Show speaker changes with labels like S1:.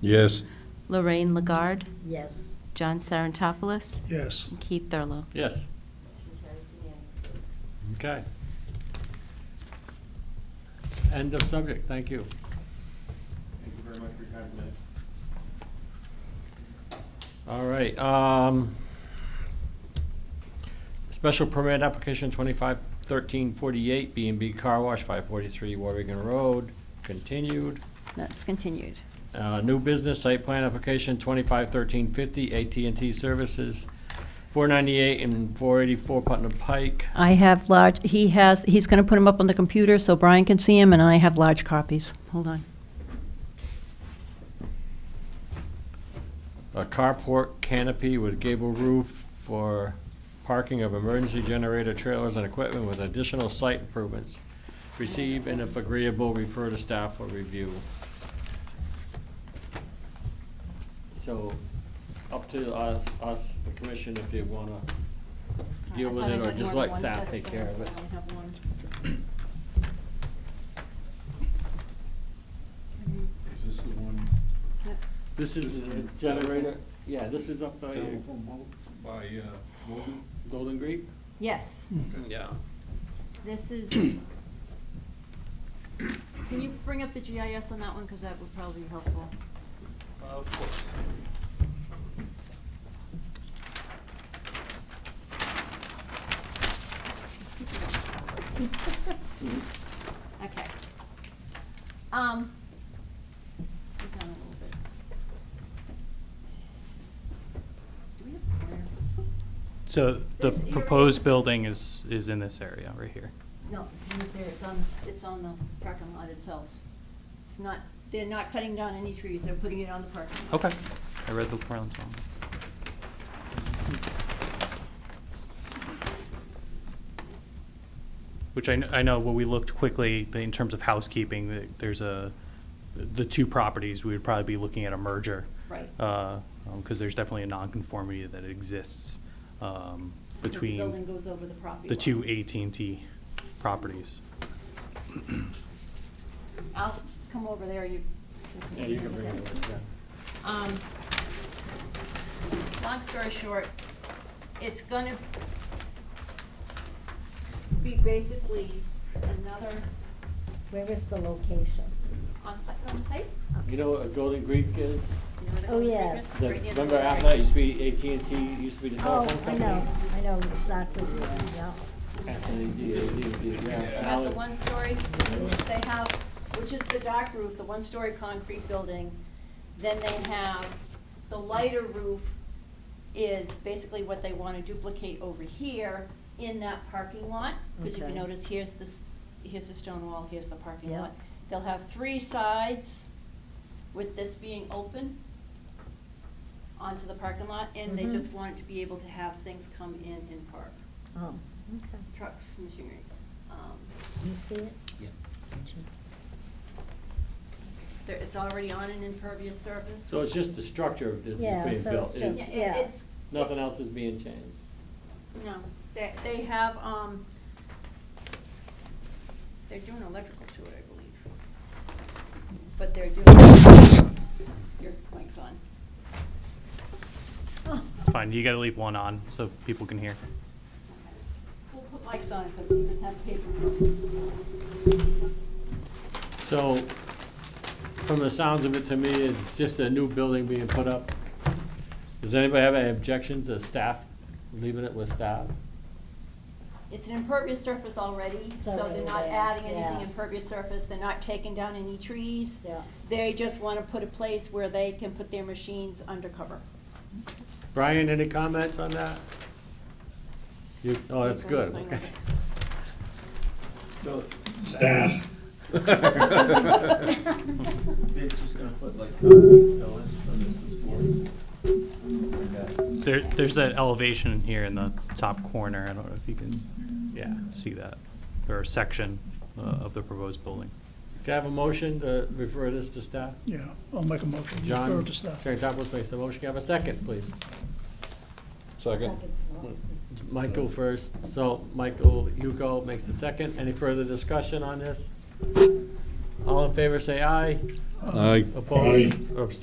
S1: Yes.
S2: Lorraine Lagarde,
S3: Yes.
S2: John Sarantopoulos,
S4: Yes.
S2: and Keith Thurlow.
S5: Yes. Okay. End of subject, thank you.
S6: Thank you very much for your time tonight.
S5: All right, um, special permit application twenty-five thirteen forty-eight, B and B Car Wash, five forty-three Warwigan Road, continued.
S2: That's continued.
S5: Uh, New business site plan application twenty-five thirteen fifty, AT&T Services, four ninety-eight and four eighty-four Putnam Pike.
S3: I have large, he has, he's going to put them up on the computer so Brian can see them, and I have large copies. Hold on.
S5: a carport canopy with gable roof for parking of emergency generator trailers and equipment with additional site improvements. Receive and if agreeable, refer to staff for review. So, up to us, us, the commission, if you wanna deal with it or just let staff take care of it.
S6: Is this the one
S5: This is the generator, yeah, this is up by uh,
S6: down from Mo- by, uh, Logan?
S5: Golden Greek?
S7: Yes,
S5: Yeah.
S7: this is, can you bring up the GIS on that one, because that would probably be helpful. Okay. Um. go down a little bit. Do we have fire?
S8: So the
S7: This area-
S8: proposed building is, is in this area right here.
S7: No, not there, it's on, the s- it's on the parking lot itself. It's not, they're not cutting down any trees, they're putting it on the parking lot.
S8: Okay. I read the plans wrong. Which I, kn- I know when we looked quickly, the- in terms of housekeeping, the- there's a, the two properties, we would probably be looking at a merger.
S7: Right.
S8: Because there's definitely a nonconformity that exists um,
S7: Because The building
S8: between
S7: goes over the property.
S8: the
S7: line.
S8: two AT&T properties.
S7: I'll come over there, you.
S5: Yeah, you can bring it over, yeah.
S7: Um, long story short, it's gonna be basically another,
S3: Where is the location?
S7: on Putnam Pike?
S5: You know what a Golden Greek is?
S7: You know where the
S3: Oh,
S7: Golden Gate
S3: yes.
S7: is?
S5: The-
S7: Right near the
S5: Remember
S7: library.
S5: after that, used to be AT&T, used to be the
S9: Oh,
S5: telephone
S9: I
S5: company?
S9: know, I know exactly where, yeah.
S5: S&T, AT&T, yeah.
S7: You
S5: Now
S7: have the
S5: it's-
S7: one-story, they have, which is the dock roof, the one-story concrete building. Then they have, the lighter roof is basically what they want to duplicate over here in that parking lot. Because if you
S9: Okay.
S7: notice, here's this, here's the stone wall, here's the parking
S9: Yeah.
S7: lot. They'll have three sides with this being open onto the parking lot. And they
S9: Mhm.
S7: just want to be able to have things come in and park,
S9: Oh, okay.
S7: trucks, machinery. Um,
S9: You see it?
S5: Yeah.
S7: There, it's already on an impervious surface.
S5: So it's just the structure that's
S9: Yeah,
S5: being
S9: so
S5: built.
S9: it's
S5: It's-
S7: Yeah,
S9: just-
S7: it-
S9: yeah.
S7: it's-
S5: Nothing else is being changed.
S7: No, they, they have, um, they're doing electrical to it, I believe. But they're doing, your mic's on.
S8: It's fine, you gotta leave one on so people can hear.
S7: We'll put mics on because we didn't have paper.
S5: So from the sounds of it to me, it's just a new building being put up. Does anybody have any objections to staff, leaving it with staff?
S7: It's an impervious surface already,
S9: It's
S7: so
S9: already
S7: they're not
S9: there,
S7: adding anything
S9: yeah.
S7: impervious surface, they're not taking down any trees.
S9: Yeah.
S7: They just want to put a place where they can put their machines undercover.
S5: Brian, any comments on that? You, oh, that's good, okay.
S1: Staff.
S6: They're just gonna put like concrete pillars for this and that.
S8: There, there's that elevation here in the top corner. I don't know if you can, yeah, see that, or a section uh, of the proposed building.
S5: Can I have a motion to refer this to staff?
S4: Yeah, I'll make a motion.
S5: John,
S4: Refer to staff.
S5: Tarantopoulos makes the motion. Can I have a second, please?
S1: Second.
S5: Michael first, so Michael Hugo makes the second. Any further discussion on this? All in favor, say aye.
S1: Aye.
S5: Opposed or abstained?